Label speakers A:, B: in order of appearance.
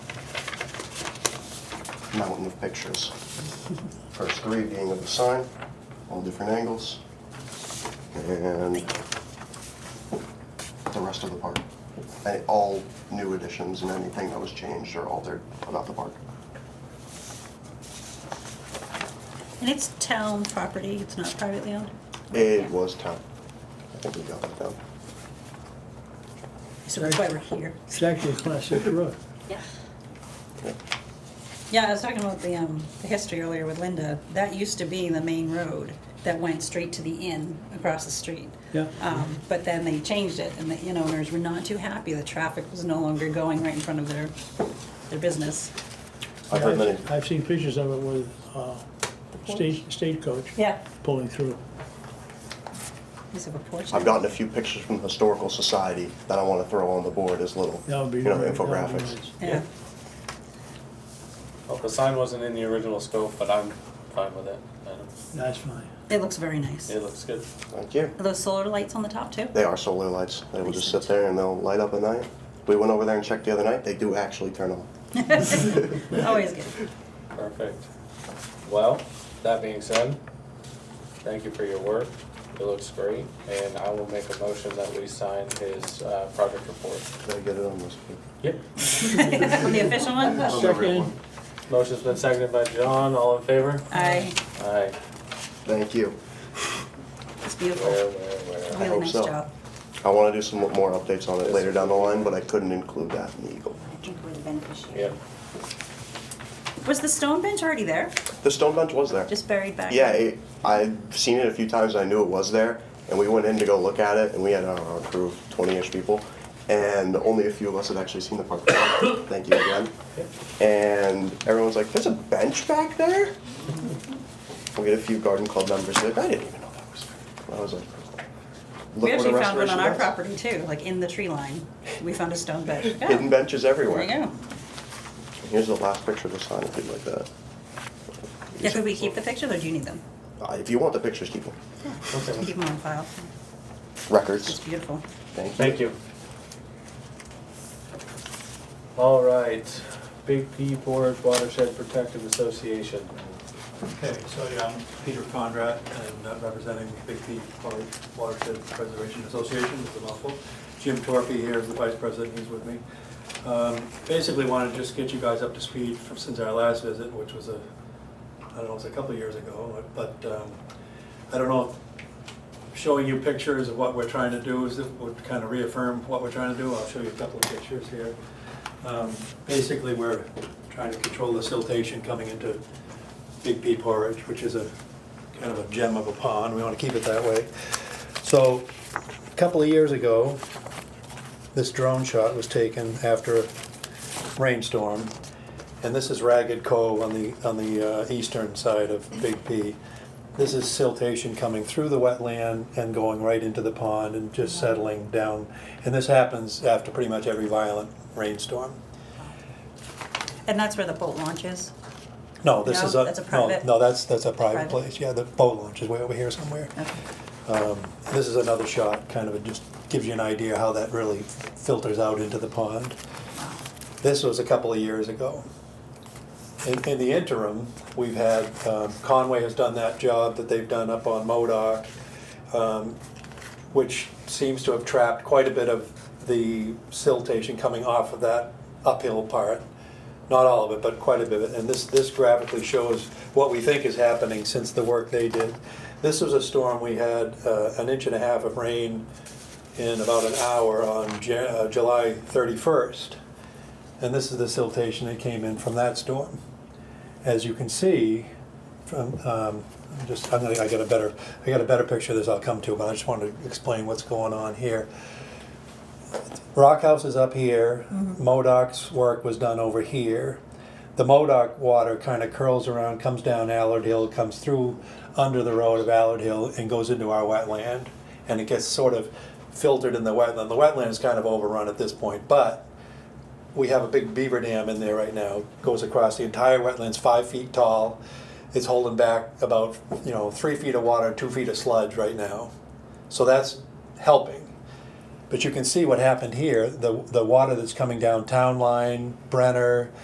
A: mountain of pictures. First three being of the sign, all different angles, and the rest of the park. And all new additions and anything that was changed or altered about the park.
B: And it's town property, it's not privately owned?
A: It was town. I think we got that down.
B: So that's why we're here.
C: It's actually a class six road.
A: Yeah.
B: Yeah, I was talking about the, um, the history earlier with Linda. That used to be the main road that went straight to the inn across the street.
C: Yeah.
B: Um, but then they changed it and the inn owners were not too happy. The traffic was no longer going right in front of their, their business.
A: I've heard many,
C: I've seen pictures of it with, uh, stage, stagecoach
B: Yeah.
C: pulling through.
B: Piece of a porch.
A: I've gotten a few pictures from the Historical Society that I want to throw on the board as little, you
C: That
A: know,
C: would be. that would be
A: infographics.
C: nice.
B: Yeah.
D: Well, the sign wasn't in the original scope, but I'm fine with it. I don't-
C: That's fine.
B: It looks very nice.
D: It looks good.
A: Thank you.
B: Are those solar lights on the top too?
A: They are solar lights. They will just sit there and they'll light up at night. We went over there and checked the other night. They do actually turn on.
B: Always good.
D: Perfect. Well, that being said, thank you for your work. It looks great, and I will make a motion that we sign his uh, project report.
A: Did I get it on this?
D: Yep.
B: The official one?
C: Second,
D: Motion's been seconded by John. All in favor?
B: Aye,
D: Aye.
A: Thank you.
B: it's
D: Where,
B: beautiful.
D: where, where?
B: Really
A: hope
B: nice
A: so.
B: job.
A: I want to do some more updates on it later down the line, but I couldn't include that in Eagle.
E: I think we're the beneficiary.
D: Yep.
B: Was the stone bench already there?
A: The stone bench was there.
B: Just buried back?
A: Yeah, it, I've seen it a few times. I knew it was there, and we went in to go look at it, and we had our, our crew of 20-ish people, and only a few of us had actually seen the park. Thank you again. And everyone's like, "There's a bench back there." We get a few garden club members like, "I didn't even know that was there." And I was like, "Look what
B: We
A: a
B: actually found one
A: restoration
B: on our
A: does."
B: property too, like in the tree line. We found a stone bench. Yeah.
A: Hidden benches
B: There
A: everywhere.
B: you go.
A: Here's the last picture of the sign if you'd like that.
B: Yeah, could we keep the pictures or do you need them?
A: Uh, if you want the pictures, keep them.
D: Okay.
B: Keep them on file. It's
A: Records.
B: beautiful.
A: Thank you.
D: Thank you. All right, Big P Board Watershed Protective Association.
F: Okay, so yeah, I'm Peter Conrad, and uh, representing Big P Watershed Preservation Association, it's a mouthful. Jim Torpy here is the vice president, he's with me. Um, Basically wanted to just get you guys up to speed from, since our last visit, which was a, I don't know, it was a couple of years ago, but um, I don't know, if showing you pictures of what we're trying to do is, would kind of reaffirm what we're trying to do. I'll show you a couple of pictures here. Um, Basically, we're trying to control the siltation coming into Big Pea Porridge, which is a kind of a gem of a pond. We want to keep it that way. So, a couple of years ago, this drone shot was taken after a rainstorm. And this is Ragged Cove on the, on the uh, eastern side of Big Pea. This is siltation coming through the wetland and going right into the pond and just settling down. And this happens after pretty much every violent rainstorm.
B: And that's where the boat launch is?
F: No, this
B: No,
F: is a,
B: that's a
F: no,
B: private-
F: no, that's, that's a
B: private.
F: private place. Yeah, the boat launch is way over here somewhere.
B: Okay.
F: This is another shot, kind of, it just gives you an idea how that really filters out into the pond. This was a couple of years ago. In, in the interim, we've had, um, Conway has done that job that they've done up on Modoc, um, which seems to have trapped quite a bit of the siltation coming off of that uphill part. Not all of it, but quite a bit. of it. And this, this graphically shows what we think is happening since the work they did. This was a storm, we had uh, an inch and a half of rain in about an hour on Ja- uh, July 31st. And this is the siltation that came in from that storm. As you can see, from, um, I'm just, I'm gonna, I got a better, I got a better picture of this I'll come to, but I just wanted to explain what's going on here. Rock House is up here, Modoc's work was done over here. The Modoc water kinda curls around, comes down Allard Hill, comes through under the road of Allard Hill and goes into our wetland. And it gets sort of filtered in the wetland. The wetland is kind of overrun at this point, but we have a big beaver dam in there right now, goes across the entire wetlands, five feet tall. It's holding back about, you know, three feet of water, two feet of sludge right now. So that's helping. But you can see what happened here, the, the water that's coming down Town Line, Brenner,